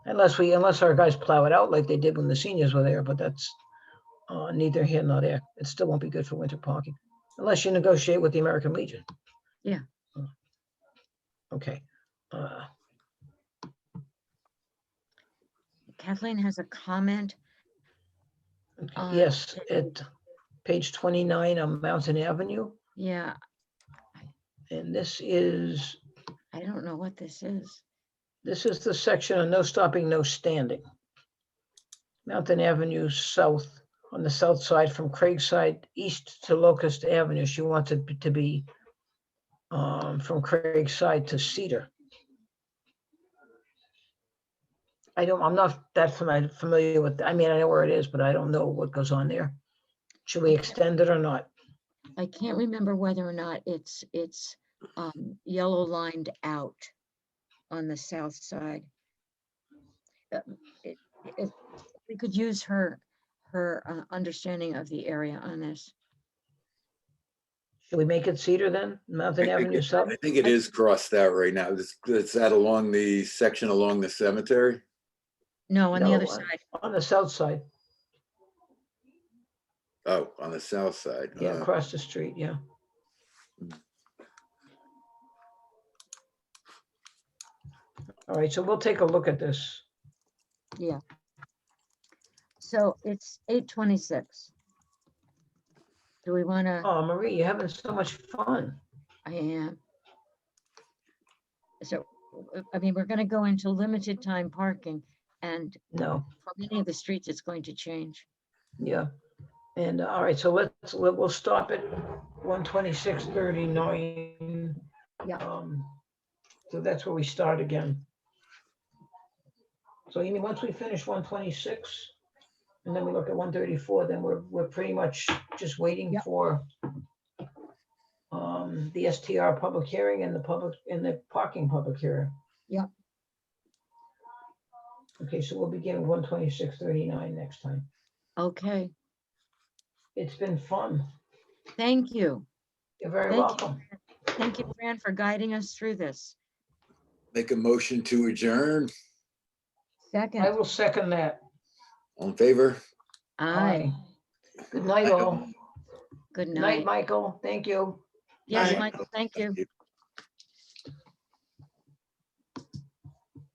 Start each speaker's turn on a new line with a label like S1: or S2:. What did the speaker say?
S1: Unless we, unless our guys plow it out like they did when the seniors were there, but that's uh, neither here nor there. It still won't be good for winter parking, unless you negotiate with the American Legion.
S2: Yeah.
S1: Uh, Okay. Uh,
S2: Kathleen has a comment.
S1: okay,
S2: Uh,
S1: Yes, at page 29 on Mountain Avenue,
S2: Yeah,
S1: and this is,
S2: I don't know what this is.
S1: this is the section of no stopping, no standing. Mountain Avenue South, on the south side from Craigside East to Locust Avenue. She wants it to be um, from Craigside to Cedar. I don't, I'm not that fami- familiar with, I mean, I know where it is, but I don't know what goes on there. Should we extend it or not?
S2: I can't remember whether or not it's, it's um, yellow lined out on the south side. Uh, it- If we could use her, her uh, understanding of the area on this.
S1: Should we make it Cedar then, Mountain
S3: I think
S1: Avenue
S3: it-
S1: South?
S3: I think it is crossed out right now. It's, it's that along the section along the cemetery.
S2: No, on the other
S1: No, uh,
S2: side.
S1: On the south side,
S3: Oh, on the south side.
S1: yeah,
S3: Uh,
S1: across the street, yeah. All right, so we'll take a look at this.
S2: So it's eight twenty-six. Do we want to,
S1: Oh, Marie, you're having so much fun.
S2: I am. So, uh, I mean, we're going to go into limited time parking and
S1: No,
S2: for many of the streets, it's going to change.
S1: yeah. And uh, all right, so let's, we'll we'll stop at one twenty-six thirty-nine. Um,
S2: Yeah.
S1: So that's where we start again. So you mean, once we finish one twenty-six, and then we look at one thirty-four, then we're, we're pretty much just waiting
S2: Yep.
S1: for um, the STR public hearing and the public, and the parking public hearing.
S2: Yep.
S1: Okay, so we'll begin one twenty-six thirty-nine next time.
S2: Okay,
S1: It's been fun.
S2: thank you.
S1: You're very
S2: Thank you.
S1: welcome.
S2: Thank you, Fran, for guiding us through this.
S3: Make a motion to adjourn.
S1: I
S2: Second,
S1: will second that.
S3: All in favor?
S1: Aye.
S2: aye,
S1: Good night, all.
S2: good
S1: Night,
S2: night.
S1: Michael. Thank you.
S2: Yes,
S3: Night.
S2: Michael, thank you.
S3: Thank you.